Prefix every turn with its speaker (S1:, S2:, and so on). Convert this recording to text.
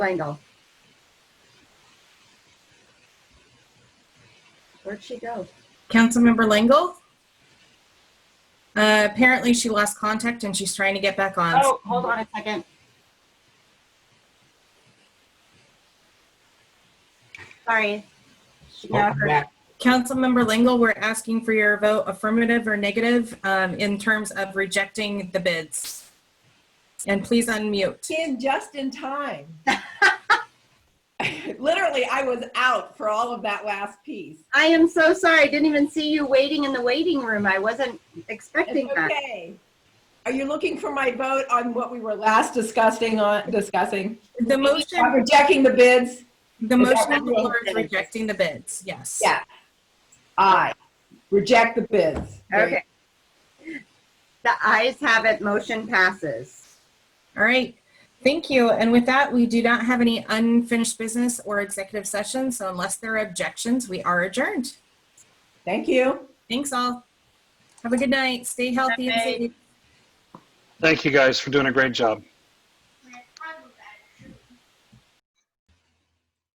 S1: Langle. Where'd she go?
S2: Councilmember Langle? Uh, apparently she lost contact and she's trying to get back on.
S1: Oh, hold on a second. Sorry. She got her.
S3: Back.
S2: Councilmember Langle, we're asking for your vote affirmative or negative, um, in terms of rejecting the bids. And please unmute.
S4: in just in time. Literally, I was out for all of that last piece.
S1: I am so sorry. I didn't even see you waiting in the waiting room. I wasn't expecting
S4: It's
S1: that.
S4: okay. Are you looking for my vote on what we were last discussing on discussing?
S2: The
S4: On
S2: motion,
S4: rejecting the bids?
S2: the motion on the
S4: what you
S2: floor is
S4: said?
S2: rejecting the bids, yes.
S4: Yeah. Aye. Reject the bids.
S1: Okay. The ayes have it. Motion passes.
S2: All right, thank you. And with that, we do not have any unfinished business or executive sessions, so unless there are objections, we are adjourned.
S4: Thank you.
S2: Thanks all. Have a good night. Stay healthy and
S1: Bye.
S2: safe.
S5: Thank you guys for doing a great job.